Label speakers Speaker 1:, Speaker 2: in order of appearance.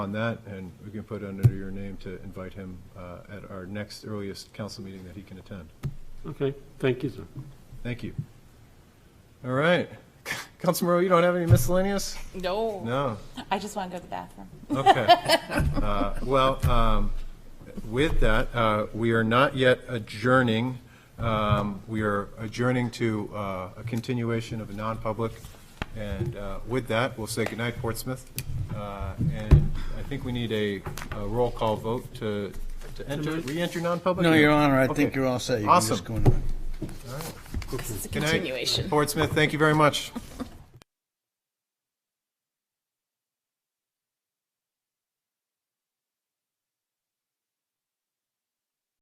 Speaker 1: on that, and we can put under your name to invite him uh, at our next earliest council meeting that he can attend.
Speaker 2: Okay, thank you, sir.
Speaker 1: Thank you. All right. Councilmember, you don't have any miscellaneous?
Speaker 3: No.
Speaker 1: No.
Speaker 3: I just want to go to the bathroom.
Speaker 1: Okay. Uh, Well, um, with that, uh, we are not yet adjourning. Um, We are adjourning to uh, a continuation of a non-public. And uh, with that, we'll say goodnight, Portsmouth. Uh, And I think we need a a roll call vote to to enter, re-enter non-public?
Speaker 4: No, Your Honor, I think
Speaker 1: Okay.
Speaker 4: you're all set. You can just
Speaker 1: Awesome.
Speaker 4: go on.
Speaker 3: It's a
Speaker 1: Good night.
Speaker 3: continuation.
Speaker 1: Portsmouth, thank you very much.